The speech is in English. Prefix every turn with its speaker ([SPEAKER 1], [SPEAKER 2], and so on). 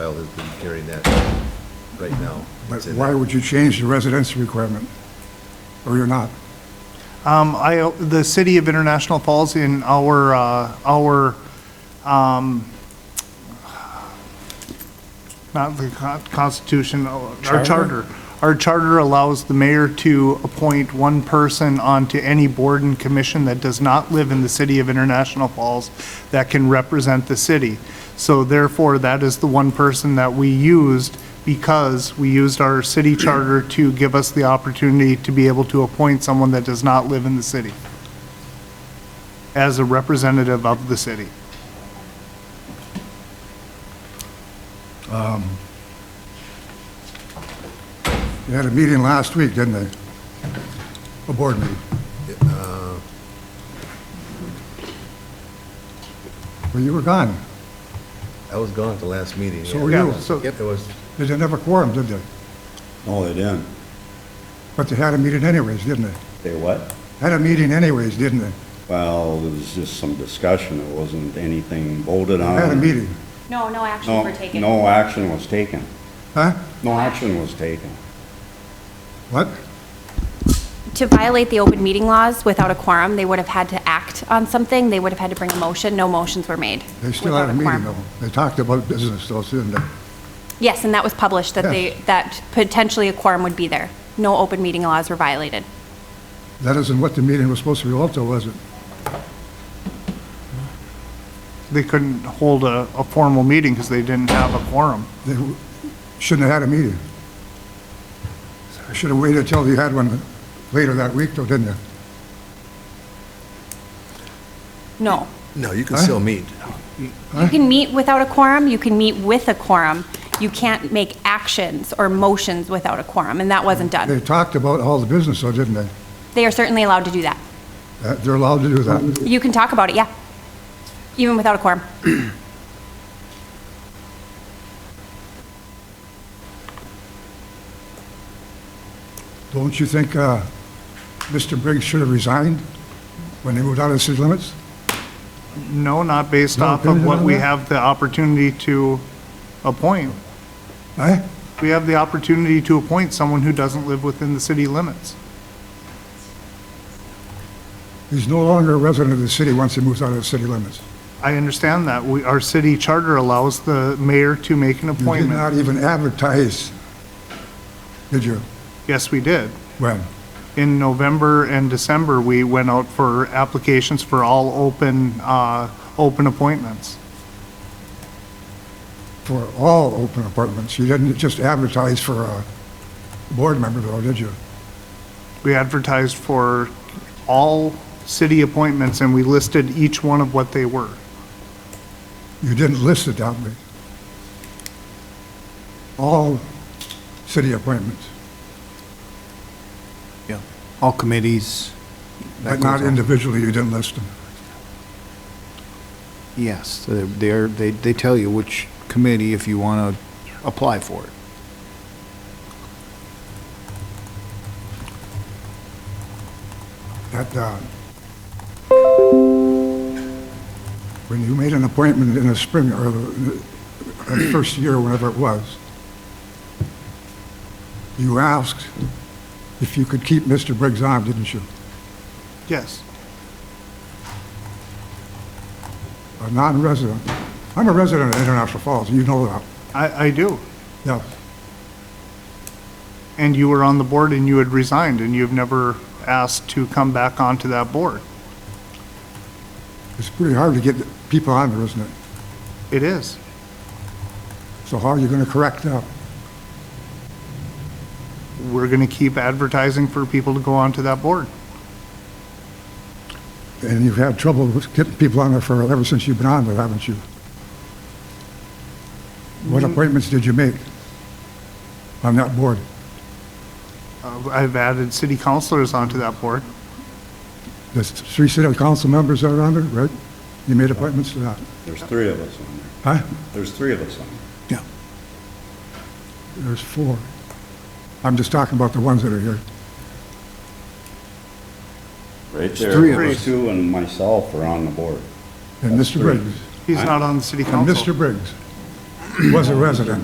[SPEAKER 1] Rail has been carrying that right now.
[SPEAKER 2] But
[SPEAKER 1] It's in
[SPEAKER 2] why
[SPEAKER 1] there.
[SPEAKER 2] would you change the residency requirement? Or you're not?
[SPEAKER 3] Um, I, the city of International Falls in our, uh, our, um, not the co- constitution, uh, our
[SPEAKER 2] Charter?
[SPEAKER 3] charter. Our charter allows the mayor to appoint one person onto any board and commission that does not live in the city of International Falls that can represent the city. So therefore, that is the one person that we used because we used our city charter to give us the opportunity to be able to appoint someone that does not live in the city as a representative of the city.
[SPEAKER 2] You had a meeting last week, didn't they? A board meeting. Well, you were gone.
[SPEAKER 1] I was gone at the last meeting.
[SPEAKER 2] So
[SPEAKER 1] yeah.
[SPEAKER 2] were you.
[SPEAKER 3] So-
[SPEAKER 1] It was,
[SPEAKER 2] They didn't have a quorum, did they?
[SPEAKER 4] Oh, they didn't.
[SPEAKER 2] But they had a meeting anyways, didn't they?
[SPEAKER 4] They what?
[SPEAKER 2] Had a meeting anyways, didn't they?
[SPEAKER 4] Well, there was just some discussion. It wasn't anything voted on.
[SPEAKER 2] Had a meeting,
[SPEAKER 5] No, no actions
[SPEAKER 4] No,
[SPEAKER 5] were taken.
[SPEAKER 4] no action was taken.
[SPEAKER 2] huh?
[SPEAKER 4] No action was taken.
[SPEAKER 2] What?
[SPEAKER 5] To violate the open meeting laws without a quorum, they would have had to act on something. They would have had to bring a motion. No motions were made.
[SPEAKER 2] They still
[SPEAKER 5] without
[SPEAKER 2] had a meeting
[SPEAKER 5] quorum.
[SPEAKER 2] though. They talked about business though, didn't they?
[SPEAKER 5] Yes, and that was published, that they,
[SPEAKER 2] Yes.
[SPEAKER 5] that potentially a quorum would be there. No open meeting laws were violated.
[SPEAKER 2] That isn't what the meeting was supposed to be also, was it?
[SPEAKER 3] They couldn't hold a, a formal meeting because they didn't have a quorum.
[SPEAKER 2] They w- shouldn't have had a meeting. I should have waited until you had one later that week though, didn't you?
[SPEAKER 5] No.
[SPEAKER 1] no, you can still meet.
[SPEAKER 5] You can meet without a quorum, you can meet with a quorum. You can't make actions or motions without a quorum, and that wasn't
[SPEAKER 2] They
[SPEAKER 5] done.
[SPEAKER 2] talked about all the business though, didn't they?
[SPEAKER 5] They are certainly allowed to do that.
[SPEAKER 2] Uh, They're allowed to do that.
[SPEAKER 5] You can talk about it, yeah, even without a quorum.
[SPEAKER 2] Don't you think uh, Mr. Briggs should have resigned when they moved out of the city limits?
[SPEAKER 3] No, not based
[SPEAKER 2] No
[SPEAKER 3] off of
[SPEAKER 2] opinion
[SPEAKER 3] what
[SPEAKER 2] on
[SPEAKER 3] we
[SPEAKER 2] that?
[SPEAKER 3] have the opportunity to appoint.
[SPEAKER 2] Eh?
[SPEAKER 3] We have the opportunity to appoint someone who doesn't live within the city limits.
[SPEAKER 2] He's no longer a resident of the city once he moves out of the city limits.
[SPEAKER 3] I understand that. We, our city charter allows the mayor to make an
[SPEAKER 2] You did not
[SPEAKER 3] appointment.
[SPEAKER 2] even advertise, did you?
[SPEAKER 3] Yes, we did.
[SPEAKER 2] When?
[SPEAKER 3] In November and December, we went out for applications for all open, uh, open appointments.
[SPEAKER 2] For all open appointments. You didn't just advertise for a board member, though, did you?
[SPEAKER 3] We advertised for all city appointments and we listed each one of what they were.
[SPEAKER 2] You didn't list it that way. All city appointments,
[SPEAKER 6] Yeah, all committees.
[SPEAKER 2] but
[SPEAKER 6] that
[SPEAKER 2] not
[SPEAKER 6] goes on.
[SPEAKER 2] individually, you didn't list them.
[SPEAKER 6] Yes, they're- they're, they, they tell you which committee if you want to apply for it.
[SPEAKER 2] That, uh, when you made an appointment in the spring, or the the first year, whenever it was, you asked if you could keep Mr. Briggs on, didn't you?
[SPEAKER 3] Yes.
[SPEAKER 2] A non-resident. I'm a resident of International Falls, you know that.
[SPEAKER 3] I, I do.
[SPEAKER 2] Yeah,
[SPEAKER 3] And you were on the board and you had resigned and you've never asked to come back onto that board.
[SPEAKER 2] it's pretty hard to get people on there, isn't it?
[SPEAKER 3] It is.
[SPEAKER 2] So how are you going to correct that?
[SPEAKER 3] We're going to keep advertising for people to go onto that board.
[SPEAKER 2] And you've had trouble with getting people on there for, ever since you've been on there, haven't you? What appointments did you make on that board?
[SPEAKER 3] Uh, I've added city councilors onto that board.
[SPEAKER 2] There's three city council members that are on there, right? You made appointments to that,
[SPEAKER 4] There's three of us on there.
[SPEAKER 2] huh?
[SPEAKER 4] There's three of us on there.
[SPEAKER 2] Yeah. There's four. I'm just talking about the ones that are here.
[SPEAKER 4] Right
[SPEAKER 6] three
[SPEAKER 4] there,
[SPEAKER 6] of
[SPEAKER 4] those
[SPEAKER 6] us.
[SPEAKER 4] two and myself are on the board.
[SPEAKER 2] And Mr.
[SPEAKER 4] three.
[SPEAKER 2] Briggs,
[SPEAKER 3] He's not on the city
[SPEAKER 2] and
[SPEAKER 3] council.
[SPEAKER 2] Mr. Briggs was a resident.